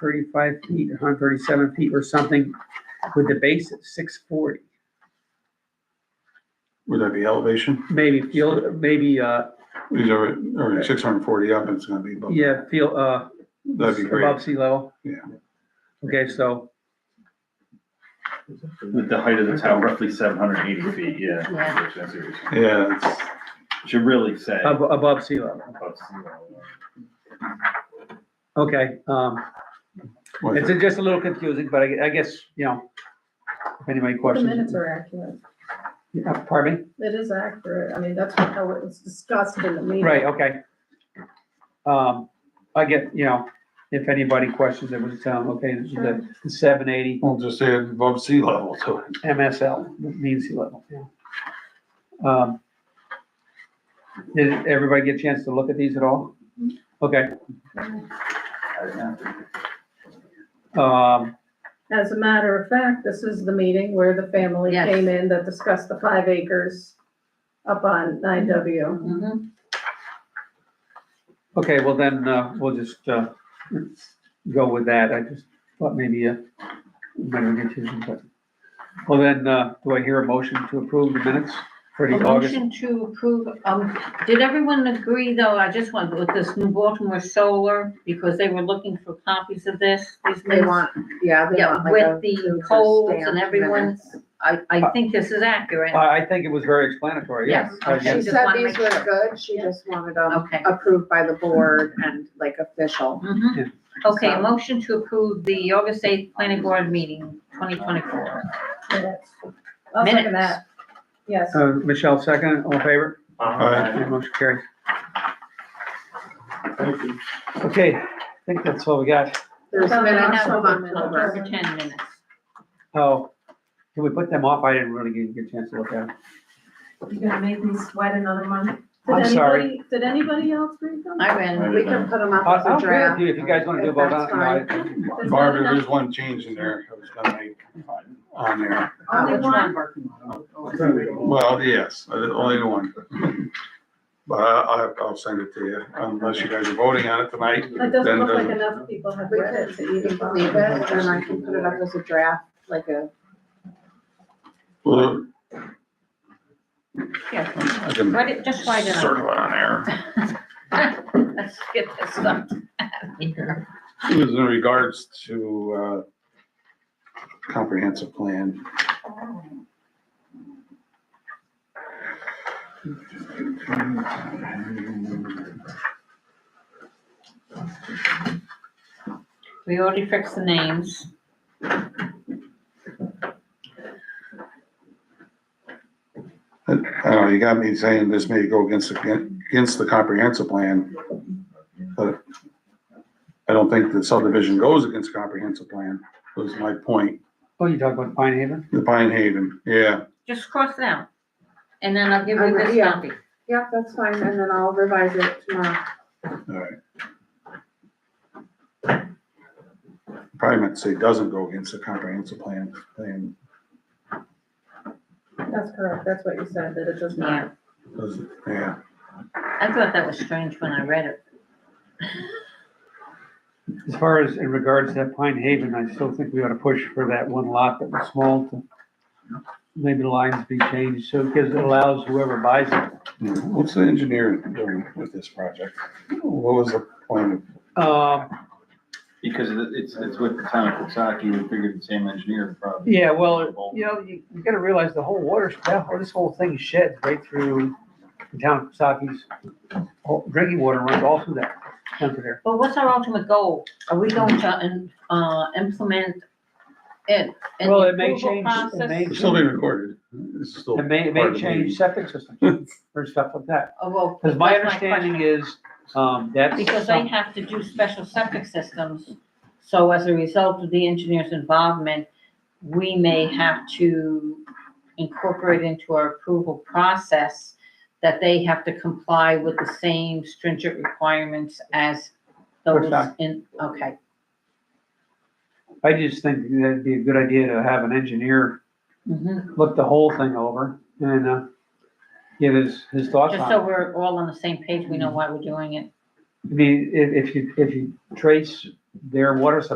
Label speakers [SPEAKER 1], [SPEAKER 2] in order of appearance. [SPEAKER 1] 135 feet, 137 feet or something with the base at 640.
[SPEAKER 2] Would that be elevation?
[SPEAKER 1] Maybe field, maybe, uh,
[SPEAKER 2] These are, are six hundred and forty up, it's gonna be above,
[SPEAKER 1] yeah, field, uh,
[SPEAKER 2] that'd be great.
[SPEAKER 1] above sea level.
[SPEAKER 2] Yeah.
[SPEAKER 1] Okay, so,
[SPEAKER 3] With the height of the tower, roughly seven hundred and eighty feet, yeah.
[SPEAKER 4] Yeah.
[SPEAKER 3] That's it.
[SPEAKER 2] Yeah, it's,
[SPEAKER 3] Should really say.
[SPEAKER 1] ab- above sea level.
[SPEAKER 3] above sea level.
[SPEAKER 1] Okay, um,
[SPEAKER 2] what is
[SPEAKER 1] it's
[SPEAKER 2] it?
[SPEAKER 1] just a little confusing, but I, I guess, you know, if anybody
[SPEAKER 4] The minutes
[SPEAKER 1] questions.
[SPEAKER 4] are accurate.
[SPEAKER 1] Uh, Pardon me?
[SPEAKER 4] It is accurate. I mean, that's how it was discussed in the meeting.
[SPEAKER 1] Right, okay. Um, I get, you know, if anybody questions, it was, um, okay, this is the the seven eighty
[SPEAKER 2] We'll just say it's above sea level, so
[SPEAKER 1] MSL, mean sea level, yeah. Um, Did everybody get a chance to look at these at all? Okay, um,
[SPEAKER 4] As a matter of fact, this is the meeting where the family
[SPEAKER 5] Yes.
[SPEAKER 4] came in that discussed the five acres up on nine W.
[SPEAKER 5] Mhm.
[SPEAKER 1] okay, well then, uh, we'll just, uh, go with that, I just thought maybe, uh, better get to, them, but. Well then, uh, do I hear a motion to approve the minutes for
[SPEAKER 5] A
[SPEAKER 1] the August?
[SPEAKER 5] motion to approve, um, did everyone agree though, I just want, with this New Baltimore Solar, because they were looking for copies of this, these
[SPEAKER 6] They
[SPEAKER 5] minutes?
[SPEAKER 6] want, yeah, they
[SPEAKER 5] Yeah,
[SPEAKER 6] want like a-
[SPEAKER 5] with
[SPEAKER 6] to
[SPEAKER 5] the
[SPEAKER 6] just
[SPEAKER 5] polls
[SPEAKER 6] stamp
[SPEAKER 5] and everyone's, I,
[SPEAKER 1] Uh,
[SPEAKER 5] I think this is accurate.
[SPEAKER 1] I, I think it was very explanatory, yes.
[SPEAKER 5] Yes,
[SPEAKER 1] Uh, yes.
[SPEAKER 5] okay.
[SPEAKER 6] She
[SPEAKER 5] just
[SPEAKER 6] said
[SPEAKER 5] wanna
[SPEAKER 6] these
[SPEAKER 5] make
[SPEAKER 6] were good, she just wanted them
[SPEAKER 5] Okay.
[SPEAKER 6] approved by the board and like official.
[SPEAKER 1] Yeah.
[SPEAKER 5] Mhm. Okay,
[SPEAKER 6] So-
[SPEAKER 5] a motion to approve the August eighth planning board meeting, twenty twenty-four.
[SPEAKER 4] Minutes. I'll second that. Yes.
[SPEAKER 1] Uh, Michelle, second, all in favor?
[SPEAKER 2] Aye.
[SPEAKER 1] Motion carries. Okay, I think that's all we got.
[SPEAKER 6] There's
[SPEAKER 4] So they
[SPEAKER 6] minutes
[SPEAKER 4] have
[SPEAKER 6] from
[SPEAKER 4] the minutes.
[SPEAKER 6] October.
[SPEAKER 5] October ten minutes.
[SPEAKER 1] Oh, can we put them off? I didn't really get a good chance to look at them.
[SPEAKER 7] Uh, You gonna make me sweat another month?
[SPEAKER 4] Did
[SPEAKER 1] I'm sorry.
[SPEAKER 4] anybody- Did anybody else read them?
[SPEAKER 5] I ran,
[SPEAKER 6] We can put them
[SPEAKER 1] I-
[SPEAKER 6] up
[SPEAKER 1] I
[SPEAKER 4] Oh,
[SPEAKER 6] as
[SPEAKER 1] don't
[SPEAKER 6] a
[SPEAKER 1] care if
[SPEAKER 6] draft.
[SPEAKER 1] you, if you guys wanna do
[SPEAKER 6] if
[SPEAKER 1] both,
[SPEAKER 6] that's
[SPEAKER 1] I don't know.
[SPEAKER 4] There's not
[SPEAKER 2] Barbara,
[SPEAKER 4] enough-
[SPEAKER 2] there's one change in there, I was gonna make on there.
[SPEAKER 6] Uh,
[SPEAKER 5] only
[SPEAKER 6] which one?
[SPEAKER 5] one,
[SPEAKER 2] Well, yes, uh, only the one. But I, I- I'll send it to you, unless you guys are voting on it tonight.
[SPEAKER 4] That doesn't
[SPEAKER 2] then
[SPEAKER 4] look like
[SPEAKER 2] doesn't-
[SPEAKER 4] enough people have
[SPEAKER 6] We
[SPEAKER 4] read it
[SPEAKER 6] could
[SPEAKER 4] to even bother.
[SPEAKER 6] leave it and I can put it up as a draft, like a,
[SPEAKER 2] Well,
[SPEAKER 5] yeah,
[SPEAKER 2] I can
[SPEAKER 5] write it, just write it
[SPEAKER 2] circle
[SPEAKER 5] on.
[SPEAKER 2] it on there.
[SPEAKER 5] Let's get this stuff out of here.
[SPEAKER 2] It was in regards to, uh, comprehensive plan.
[SPEAKER 5] We already fixed the names.
[SPEAKER 2] I don't know, you got me saying this may go against, the- against the comprehensive plan, but I don't think the subdivision goes against the comprehensive plan, was my point.
[SPEAKER 1] Oh, you talk about Pine Haven?
[SPEAKER 2] The Pine Haven, yeah,
[SPEAKER 5] Just cross it out. And then I'll give you
[SPEAKER 6] Um,
[SPEAKER 5] this
[SPEAKER 6] yeah.
[SPEAKER 5] copy.
[SPEAKER 6] yeah, that's fine, and then I'll revise it tomorrow.
[SPEAKER 2] all right. Probably meant to say doesn't go against the comprehensive plan, plan,
[SPEAKER 4] That's correct. That's what you said, that it does not.
[SPEAKER 5] Yeah,
[SPEAKER 2] doesn't, yeah.
[SPEAKER 5] I thought that was strange when I read it.
[SPEAKER 1] As far as in regards to that Pine Haven, I still think we ought to push for that one lot that was small to maybe the lines be changed, so, because it allows whoever buys it
[SPEAKER 2] What's the engineer doing with this project? What was the point of
[SPEAKER 1] Um,
[SPEAKER 3] Because it- it's, it's with the town of Koksaki, we figured the same engineer would probably.
[SPEAKER 1] yeah, well, you know, you, you gotta realize the whole water, that, whole- this whole thing sheds right through the town of Saki's. Drinking water runs all through that, down through there.
[SPEAKER 5] But what's our ultimate goal? Are we going to, uh, implement it? and
[SPEAKER 1] Well, it may
[SPEAKER 5] approval
[SPEAKER 1] change- it may-
[SPEAKER 5] process?
[SPEAKER 2] It's still being recorded. It's still.
[SPEAKER 1] It may, it
[SPEAKER 2] part
[SPEAKER 1] may
[SPEAKER 2] of the
[SPEAKER 1] change
[SPEAKER 2] meeting.
[SPEAKER 1] septic systems or stuff like that.
[SPEAKER 5] Oh, well,
[SPEAKER 1] Cause my
[SPEAKER 5] that's
[SPEAKER 1] understanding
[SPEAKER 5] question.
[SPEAKER 1] is, um, that's.
[SPEAKER 5] Because
[SPEAKER 1] some-
[SPEAKER 5] they have to do special septic systems, so as a result of the engineer's involvement, we may have to incorporate into our approval process that they have to comply with the same stringent requirements as those
[SPEAKER 1] Correct.
[SPEAKER 5] in, okay,
[SPEAKER 1] I just think that'd be a good idea to have an engineer
[SPEAKER 5] Mhm.
[SPEAKER 1] look the whole thing over and, uh, give his, his thoughts on it.
[SPEAKER 5] just so we're all on the same page, we know why we're doing it.
[SPEAKER 1] I mean, if, if you, if you trace their water supply